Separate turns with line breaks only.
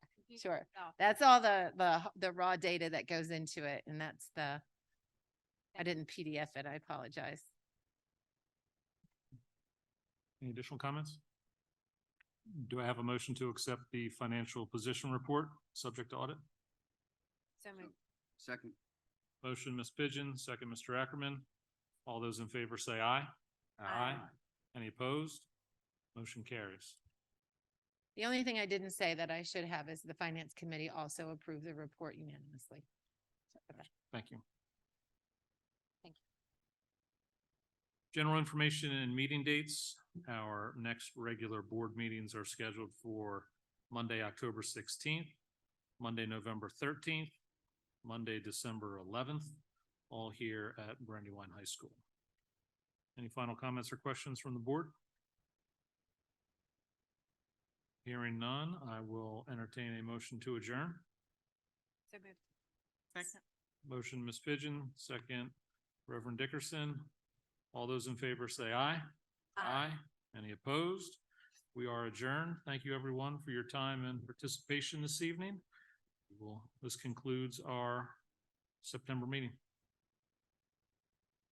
you-
Sure.
oh,
That's all the, the, the raw data that goes into it and that's the, I didn't PDF it. I apologize.
Any additional comments? Do I have a motion to accept the financial position report, subject to audit?
So moved.
Second.
Motion, Ms. Pigeon, second, Mr. Ackerman. All those in favor say aye.
Aye.
Any opposed? Motion carries.
The only thing I didn't say that I should have is the finance committee also approved the report unanimously. Sorry about that.
Thank you.
Thank
General information and meeting dates. Our next regular board meetings are scheduled for Monday, October sixteenth, Monday, November thirteenth, Monday, December eleventh, all here at Brandywine High School. Any final comments or questions from the board? Hearing none, I will entertain a motion to adjourn.
So moved.
Motion, Ms. Pigeon, second, Reverend Dickerson. All those in favor say aye. Any opposed? We are adjourned. Thank you, everyone, for your time and participation this evening. Well, this concludes our September meeting.